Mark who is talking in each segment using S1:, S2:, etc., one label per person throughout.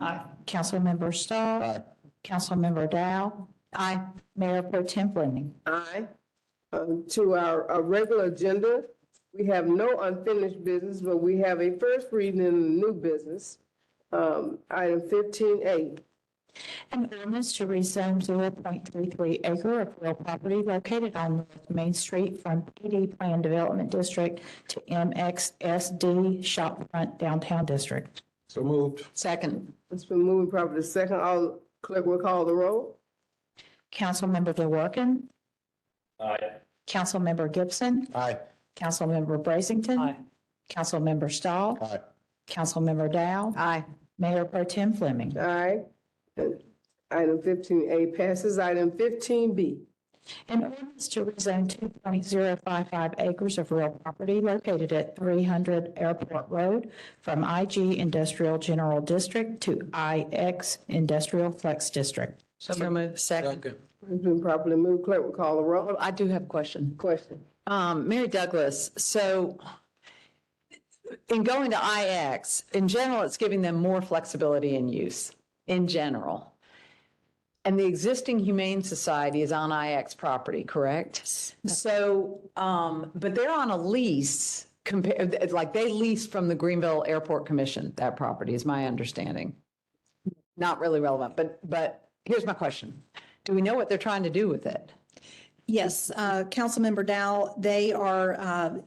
S1: Aye. Councilmember Stahl?
S2: Aye.
S1: Councilmember Dow? Aye. Mayor Pro Tem Fleming?
S3: Aye. Um, To our our regular agenda, we have no unfinished business, but we have a first reading in new business. Um, Item fifteen A.
S1: An ordinance to rezone zero point three three acre of real property located on North Main Street from PD Plan Development District to MXSD Shopfront Downtown District.
S2: So moved.
S4: Second.
S3: It's been moved properly second. All clerk will call the roll.
S1: Councilmember DeWorke?
S2: Aye.
S1: Councilmember Gibson?
S2: Aye.
S1: Councilmember Brazington?
S4: Aye.
S1: Councilmember Stahl?
S2: Aye.
S1: Councilmember Dow?
S4: Aye.
S1: Mayor Pro Tem Fleming?
S3: Aye. And Item fifteen A passes. Item fifteen B.
S1: An ordinance to rezone two point zero five five acres of real property located at three hundred Airport Road from IG Industrial General District to IX Industrial Flex District.
S4: So moved. Second.
S3: It's been properly moved. Clerk will call the roll.
S4: I do have a question.
S3: Question.
S4: Um, Mary Douglas, so in going to IX, in general, it's giving them more flexibility in use, in general. And the existing Humane Society is on IX property, correct? So, um, but they're on a lease compared, like they leased from the Greenville Airport Commission, that property is my understanding. Not really relevant, but, but here's my question. Do we know what they're trying to do with it?
S5: Yes, uh, Councilmember Dow, they are uh,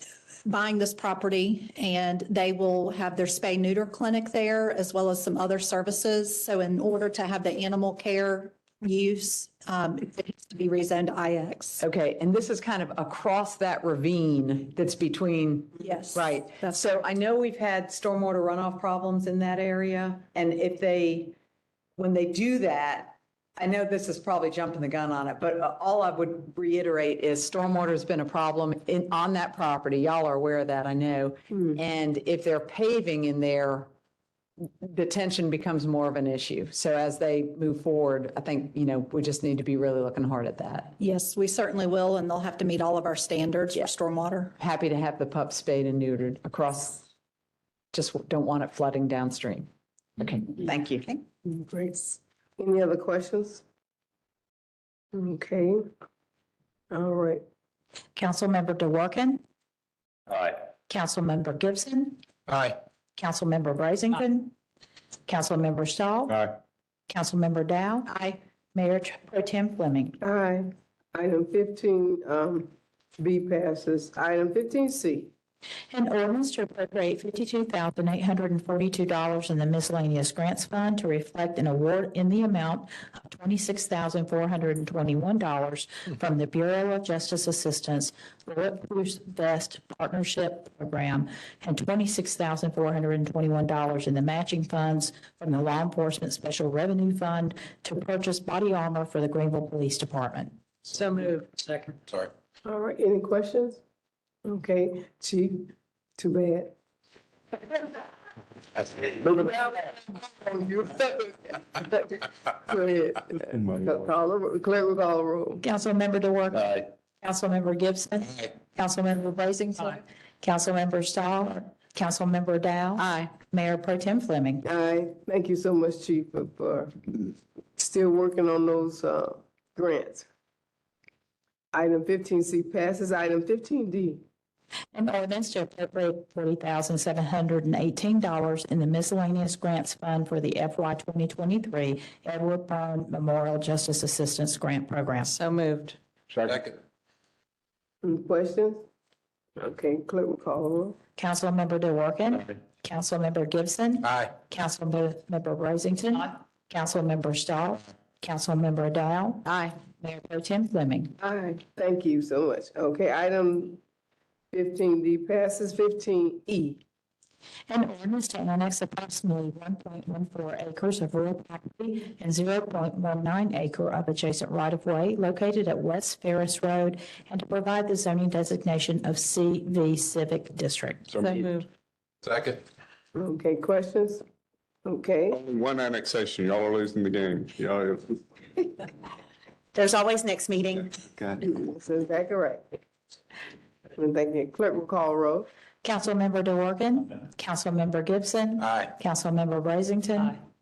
S5: buying this property and they will have their spay neuter clinic there as well as some other services. So in order to have the animal care use, um, it needs to be rezoned to IX.
S4: Okay, and this is kind of across that ravine that's between,
S5: Yes.
S4: right?
S5: That's,
S4: So I know we've had stormwater runoff problems in that area, and if they, when they do that, I know this is probably jumping the gun on it, but uh, all I would reiterate is stormwater's been a problem in, on that property. Y'all are aware of that, I know.
S5: Hmm.
S4: And if they're paving in there, the tension becomes more of an issue. So as they move forward, I think, you know, we just need to be really looking hard at that.
S5: yes, we certainly will, and they'll have to meet all of our standards for stormwater.
S4: happy to have the pup spayed and neutered across. Just don't want it flooding downstream. Okay, thank you.
S3: Great. Any other questions? Okay. All right.
S1: Councilmember DeWorke?
S2: Aye.
S1: Councilmember Gibson?
S2: Aye.
S1: Councilmember Brazington? Councilmember Stahl?
S2: Aye.
S1: Councilmember Dow?
S4: Aye.
S1: Mayor Pro Tem Fleming?
S3: Aye. Item fifteen, um, B passes. Item fifteen C.
S1: An ordinance to appropriate fifty-two thousand eight hundred and forty-two dollars in the miscellaneous grants fund to reflect an award in the amount of twenty-six thousand four hundred and twenty-one dollars from the Bureau of Justice Assistance Lord Bruce Vest Partnership Program and twenty-six thousand four hundred and twenty-one dollars in the matching funds from the Law Enforcement Special Revenue Fund to purchase body armor for the Greenville Police Department.
S4: So moved. Second.
S2: Sorry.
S3: All right, any questions? Okay, chief, too bad.
S2: That's it.
S3: Go ahead. Call the, clerk will call the roll.
S1: Councilmember DeWorke?
S2: Aye.
S1: Councilmember Gibson.
S2: Aye.
S1: Councilmember Brazington. Councilmember Stahl. Councilmember Dow.
S4: Aye.
S1: Mayor Pro Tem Fleming.
S3: Aye, thank you so much, chief, for- for still working on those, uh, grants. Item fifteen C passes. Item fifteen D.
S1: An ordinance to appropriate forty thousand seven hundred and eighteen dollars in the miscellaneous grants fund for the FY twenty twenty-three Edward Byrne Memorial Justice Assistance Grant Program.
S4: So moved.
S2: Second.
S3: Any questions? Okay, clerk will call the roll.
S1: Councilmember DeWorke. Councilmember Gibson.
S2: Aye.
S1: Councilmember Brazington. Councilmember Stahl. Councilmember Dow.
S4: Aye.
S1: Mayor Pro Tem Fleming.
S3: Aye, thank you so much. Okay, item fifteen D passes. Fifteen E.
S1: An ordinance to annex approximately one point one four acres of rural property and zero point one nine acre of adjacent right-of-way located at West Ferris Road and to provide the zoning designation of CV Civic District.
S4: So moved.
S2: Second.
S3: Okay, questions? Okay.
S6: Only One annexation, y'all are losing the game. Y'all,
S5: There's always next meeting.
S6: God.
S3: That's exactly right. And thank you. Clerk will call roll.
S1: Councilmember DeWorke. Councilmember Gibson.
S2: Aye.
S1: Councilmember Brazington.